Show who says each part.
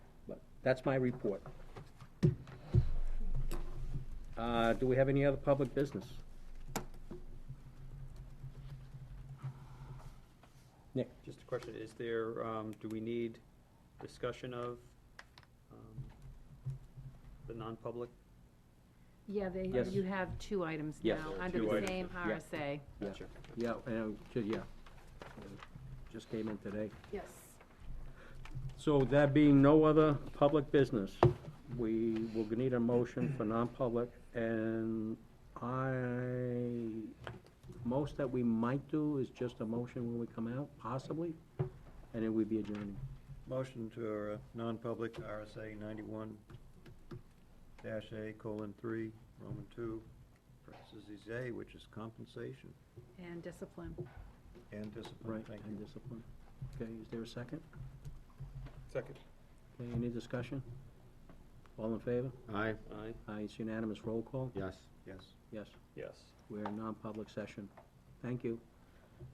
Speaker 1: That's my report. Uh, do we have any other public business? Nick?
Speaker 2: Just a question, is there, um, do we need discussion of, um, the non-public?
Speaker 3: Yeah, they,
Speaker 1: Yes.
Speaker 3: you have two items now,
Speaker 1: Yes.
Speaker 3: under
Speaker 2: Two
Speaker 3: the
Speaker 2: items.
Speaker 3: same
Speaker 1: Yeah.
Speaker 3: RSA.
Speaker 1: Yeah.
Speaker 2: Gotcha.
Speaker 1: Yeah, and, uh, ju- yeah. Just came in today.
Speaker 3: Yes.
Speaker 1: So there being no other public business, we will need a motion for non-public, and I, most that we might do is just a motion when we come out, possibly, and then we'd be adjourned.
Speaker 4: Motion to, uh, non-public RSA ninety-one dash A colon three, Roman two, parentheses A, which is compensation
Speaker 3: And discipline.
Speaker 4: and discipline.
Speaker 1: Right,
Speaker 4: Thank
Speaker 1: and
Speaker 4: you.
Speaker 1: discipline. Okay, is there a second?
Speaker 2: Second.
Speaker 1: Okay, any discussion? All in favor?
Speaker 5: Aye,
Speaker 2: Aye,
Speaker 1: Aye, Uh, it's unanimous, roll call?
Speaker 5: yes.
Speaker 4: Yes.
Speaker 1: Yes,
Speaker 2: yes.
Speaker 1: we're in non-public session. Thank you.